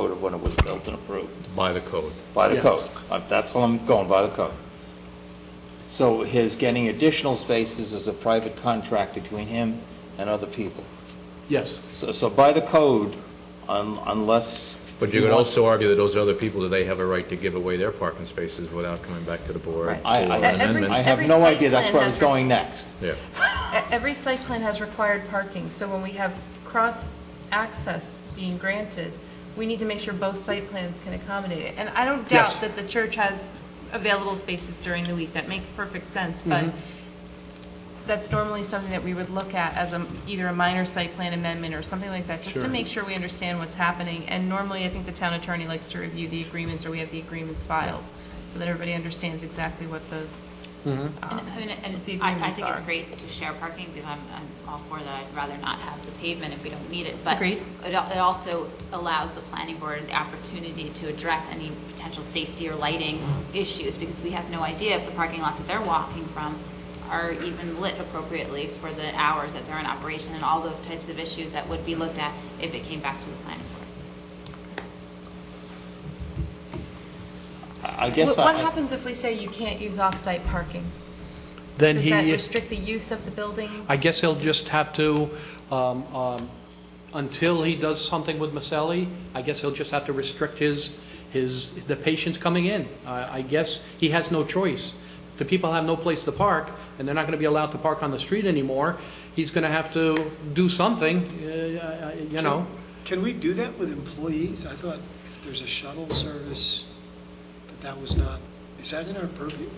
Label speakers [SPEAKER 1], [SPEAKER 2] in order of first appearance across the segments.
[SPEAKER 1] code when it was built and approved,
[SPEAKER 2] by the code.
[SPEAKER 1] by the
[SPEAKER 3] Yes.
[SPEAKER 1] code. Uh, That's what I'm going, by the code. So his getting additional spaces is a private contract between him and other people.
[SPEAKER 3] Yes,
[SPEAKER 1] So, so by the code, un- unless.
[SPEAKER 2] But you could also argue that those other people, that they have a right to give away their parking spaces without coming back to the board
[SPEAKER 4] Right.
[SPEAKER 2] for
[SPEAKER 1] I, I
[SPEAKER 2] an
[SPEAKER 1] have,
[SPEAKER 4] amendment.
[SPEAKER 1] I
[SPEAKER 2] amendment.
[SPEAKER 1] have
[SPEAKER 4] Every
[SPEAKER 1] no
[SPEAKER 4] site
[SPEAKER 1] idea, that's
[SPEAKER 4] plan
[SPEAKER 1] where I
[SPEAKER 4] has
[SPEAKER 1] was going
[SPEAKER 4] re-
[SPEAKER 1] next.
[SPEAKER 2] Yeah,
[SPEAKER 4] E- Every site plan has required parking, so when we have cross-access being granted, we need to make sure both site plans can accommodate it. And I don't
[SPEAKER 3] Yes.
[SPEAKER 4] doubt that the church has available spaces during the week, that makes perfect sense, but
[SPEAKER 3] Mm-hmm.
[SPEAKER 4] that's normally something that we would look at as a, either a minor site plan amendment or something like that, just to
[SPEAKER 3] Sure.
[SPEAKER 4] make sure we understand what's happening. And normally, I think the town attorney likes to review the agreements, or we have the agreements filed, so that everybody understands exactly what the,
[SPEAKER 5] And-
[SPEAKER 3] Mm-hmm.
[SPEAKER 4] um,
[SPEAKER 5] I mean,
[SPEAKER 4] the
[SPEAKER 5] And I, I
[SPEAKER 4] agreements
[SPEAKER 5] think it's
[SPEAKER 4] are.
[SPEAKER 5] great to share parking, because I'm, I'm all for that, I'd rather not have the pavement if we don't need it, but
[SPEAKER 4] Agreed.
[SPEAKER 5] it, al- it also allows the planning board the opportunity to address any potential safety or lighting issues, because we have no idea if the parking lots that they're walking from are even lit appropriately for the hours that they're in operation, and all those types of issues that would be looked at if it came back to the planning board.
[SPEAKER 1] I I guess
[SPEAKER 4] What what
[SPEAKER 1] I,
[SPEAKER 4] happens if we say you can't use off-site parking?
[SPEAKER 3] then
[SPEAKER 4] Does
[SPEAKER 3] he.
[SPEAKER 4] that restrict the use of the buildings?
[SPEAKER 3] I guess he'll just have to, um, um, until he does something with Maselli, I guess he'll just have to restrict his, his, the patients coming in. I I guess he has no choice. The people have no place to park, and they're not going to be allowed to park on the street anymore. He's going to have to do something, uh, I- I- you know?
[SPEAKER 6] Can we do that with employees? I thought if there's a shuttle service, but that was not, is that in our purview?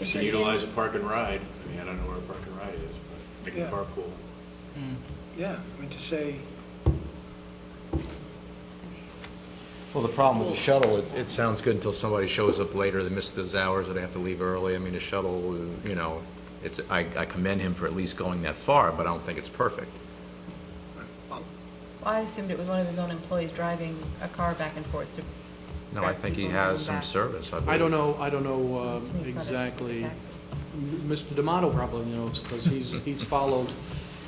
[SPEAKER 4] Is
[SPEAKER 6] Say-
[SPEAKER 4] it in-
[SPEAKER 7] utilize a park and ride. I mean, I don't know where a park and ride is, but they
[SPEAKER 6] Yeah.
[SPEAKER 7] can carpool.
[SPEAKER 6] Yeah, I mean, to say,
[SPEAKER 2] Well, the problem with the shuttle, Oh, it, it sounds good until somebody shows up later, they miss those hours, or they have to leave early. I mean, the shuttle, you know, it's, I, I commend him for at least going that far, but I don't think it's perfect.
[SPEAKER 4] Well, I assumed it was one of his own employees driving a car back and forth to.
[SPEAKER 2] No, I
[SPEAKER 4] Correct.
[SPEAKER 2] think he
[SPEAKER 4] People coming
[SPEAKER 2] has some
[SPEAKER 4] back.
[SPEAKER 2] service, I believe.
[SPEAKER 3] I don't know, I don't know um,
[SPEAKER 4] It's not a
[SPEAKER 3] exactly.
[SPEAKER 4] taxi.
[SPEAKER 3] Mr. D'Amato probably knows, because he's, he's followed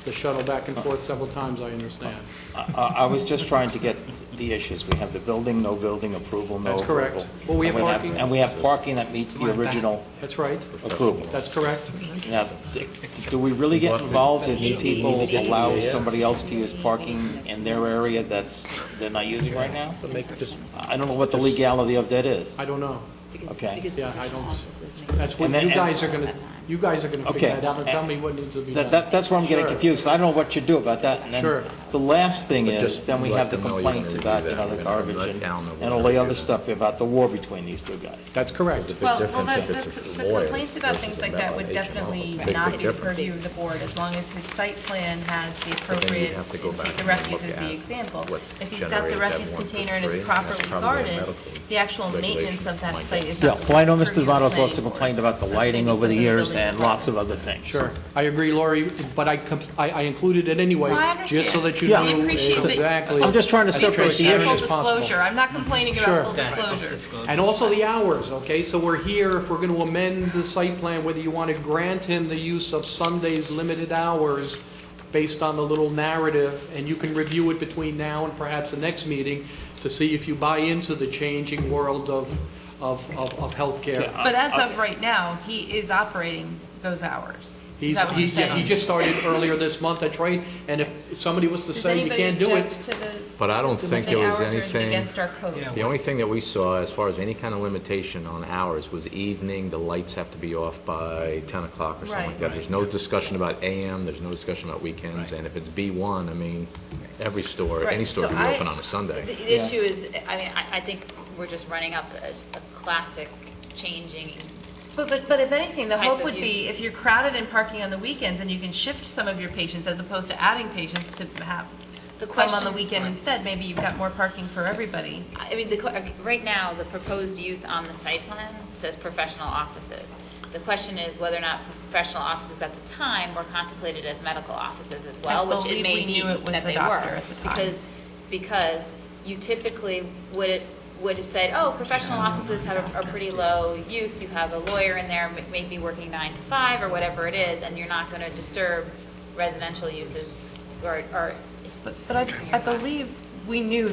[SPEAKER 3] the shuttle back and forth several times, I understand.
[SPEAKER 1] I I was just trying to get the issues. We have the building, no building approval, no
[SPEAKER 3] That's
[SPEAKER 1] approval.
[SPEAKER 3] correct. Well, we
[SPEAKER 1] And
[SPEAKER 3] have parking.
[SPEAKER 1] And we have parking that meets the original
[SPEAKER 3] That's right,
[SPEAKER 1] approval.
[SPEAKER 3] that's correct.
[SPEAKER 1] Now, d- do we really get involved in people allow somebody else to use parking in their area that's, they're not using right now? I don't know what the legality of that is.
[SPEAKER 3] I don't know.
[SPEAKER 5] Because-
[SPEAKER 1] Okay.
[SPEAKER 5] because
[SPEAKER 3] Yeah, I
[SPEAKER 5] professional
[SPEAKER 3] don't-
[SPEAKER 5] offices make-
[SPEAKER 3] That's what
[SPEAKER 1] And then-
[SPEAKER 3] you guys are
[SPEAKER 5] and-
[SPEAKER 3] gonna, you guys are gonna figure
[SPEAKER 1] Okay.
[SPEAKER 3] that out and tell me what needs to be done.
[SPEAKER 1] That, that, that's where I'm getting
[SPEAKER 3] Sure.
[SPEAKER 1] confused. I don't know what you do about that. And then
[SPEAKER 3] Sure.
[SPEAKER 1] The last thing
[SPEAKER 2] But
[SPEAKER 1] is,
[SPEAKER 2] just
[SPEAKER 1] then we
[SPEAKER 2] let
[SPEAKER 1] have the
[SPEAKER 2] them know you're gonna
[SPEAKER 1] complaints
[SPEAKER 2] review
[SPEAKER 1] about,
[SPEAKER 2] that.
[SPEAKER 1] you know, the
[SPEAKER 2] You're gonna
[SPEAKER 1] garbage
[SPEAKER 2] let
[SPEAKER 1] and,
[SPEAKER 2] down the
[SPEAKER 1] and all the
[SPEAKER 2] water.
[SPEAKER 1] other stuff about the war between these two guys.
[SPEAKER 3] That's correct.
[SPEAKER 2] Big
[SPEAKER 4] Well, well,
[SPEAKER 2] difference
[SPEAKER 4] the,
[SPEAKER 2] if it's
[SPEAKER 4] the
[SPEAKER 2] a
[SPEAKER 4] the
[SPEAKER 2] lawyer
[SPEAKER 4] complaints about
[SPEAKER 2] versus
[SPEAKER 4] things
[SPEAKER 2] a
[SPEAKER 4] like that
[SPEAKER 2] member
[SPEAKER 4] would
[SPEAKER 2] of H&R.
[SPEAKER 4] definitely
[SPEAKER 2] Big, big
[SPEAKER 4] not be the
[SPEAKER 2] difference.
[SPEAKER 4] purview of the board, as long as his site plan has the
[SPEAKER 2] then you'd
[SPEAKER 4] appropriate,
[SPEAKER 2] have to go back
[SPEAKER 4] take the
[SPEAKER 2] and look
[SPEAKER 4] refuse as
[SPEAKER 2] at
[SPEAKER 4] the example.
[SPEAKER 2] what
[SPEAKER 4] If he's got the
[SPEAKER 2] generated that
[SPEAKER 4] refuse
[SPEAKER 2] one for
[SPEAKER 4] container and
[SPEAKER 2] three,
[SPEAKER 4] it's
[SPEAKER 2] that's
[SPEAKER 4] properly
[SPEAKER 2] probably a
[SPEAKER 4] guarded,
[SPEAKER 2] medical
[SPEAKER 4] the actual
[SPEAKER 2] regulation,
[SPEAKER 4] maintenance of that
[SPEAKER 2] my
[SPEAKER 4] site
[SPEAKER 2] guess.
[SPEAKER 4] is
[SPEAKER 1] Yeah,
[SPEAKER 4] not.
[SPEAKER 1] well, I know
[SPEAKER 4] the
[SPEAKER 1] Mr.
[SPEAKER 4] purview of the
[SPEAKER 1] Devano's
[SPEAKER 4] planning
[SPEAKER 1] also
[SPEAKER 4] board.
[SPEAKER 1] complained about the
[SPEAKER 4] That's
[SPEAKER 1] lighting
[SPEAKER 4] maybe
[SPEAKER 1] over the
[SPEAKER 4] something
[SPEAKER 1] years
[SPEAKER 4] building
[SPEAKER 1] and lots of
[SPEAKER 4] departments.
[SPEAKER 1] other things.
[SPEAKER 3] Sure, I agree, Lori, but I, com- I I included it anyway,
[SPEAKER 4] Well, I
[SPEAKER 3] just so
[SPEAKER 4] understand.
[SPEAKER 3] that you
[SPEAKER 1] Yeah.
[SPEAKER 4] We
[SPEAKER 3] knew
[SPEAKER 4] appreciate that-
[SPEAKER 3] exactly.
[SPEAKER 1] I'm just trying to
[SPEAKER 3] as
[SPEAKER 1] separate the
[SPEAKER 3] transparent
[SPEAKER 1] issue.
[SPEAKER 4] Full
[SPEAKER 3] as possible.
[SPEAKER 4] disclosure, I'm not complaining
[SPEAKER 3] Sure.
[SPEAKER 4] about full disclosure.
[SPEAKER 3] And also the hours, okay? So we're here, if we're going to amend the site plan, whether you want to grant him the use of Sunday's limited hours based on the little narrative, and you can review it between now and perhaps the next meeting to see if you buy into the changing world of, of, of of healthcare.
[SPEAKER 4] But as of right now, he is operating those hours. Is
[SPEAKER 3] He's,
[SPEAKER 4] that what
[SPEAKER 3] he,
[SPEAKER 4] you're saying?
[SPEAKER 3] he just started earlier this month, that's right, and if somebody was to
[SPEAKER 4] Does
[SPEAKER 3] say you
[SPEAKER 4] anybody
[SPEAKER 3] can't do it,
[SPEAKER 4] object to the-
[SPEAKER 2] But I don't
[SPEAKER 4] to
[SPEAKER 2] think
[SPEAKER 4] the
[SPEAKER 2] there was
[SPEAKER 4] hours or is it
[SPEAKER 2] anything-
[SPEAKER 4] Against our code.
[SPEAKER 2] The only thing that we saw, as far as any kind of limitation on hours, was evening, the lights have to be off by 10 o'clock or something like
[SPEAKER 4] Right.
[SPEAKER 2] that. There's no discussion about AM, there's no discussion about weekends, and if it's B1, I mean, every store, any
[SPEAKER 4] Right,
[SPEAKER 2] store
[SPEAKER 4] so
[SPEAKER 2] can be
[SPEAKER 4] I-
[SPEAKER 2] open on a
[SPEAKER 5] So
[SPEAKER 2] Sunday.
[SPEAKER 5] The the issue is, I mean, I, I think we're just running up a, a classic changing,
[SPEAKER 4] But, but, but if anything, the
[SPEAKER 5] Type
[SPEAKER 4] hope
[SPEAKER 5] of
[SPEAKER 4] would be if you're crowded and parking on the weekends and you can shift some of your patients as opposed to adding patients to have
[SPEAKER 5] The
[SPEAKER 4] come on the
[SPEAKER 5] question-
[SPEAKER 4] weekend instead, maybe you've got more parking for everybody.
[SPEAKER 5] I mean, the, que- right now, the proposed use on the site plan says professional offices. The question is whether or not professional offices at the time were contemplated as medical offices as well,
[SPEAKER 4] I
[SPEAKER 5] which it
[SPEAKER 4] believe
[SPEAKER 5] may
[SPEAKER 4] we
[SPEAKER 5] be
[SPEAKER 4] knew it was
[SPEAKER 5] that
[SPEAKER 4] the
[SPEAKER 5] they
[SPEAKER 4] doctor
[SPEAKER 5] were.
[SPEAKER 4] at the time.
[SPEAKER 5] Because, because you typically would, it- would have said, oh, professional offices have, are pretty low use, you have a lawyer in there, m- maybe working nine to five or whatever it is, and you're not gonna disturb residential uses or, or
[SPEAKER 4] But I, I believe we knew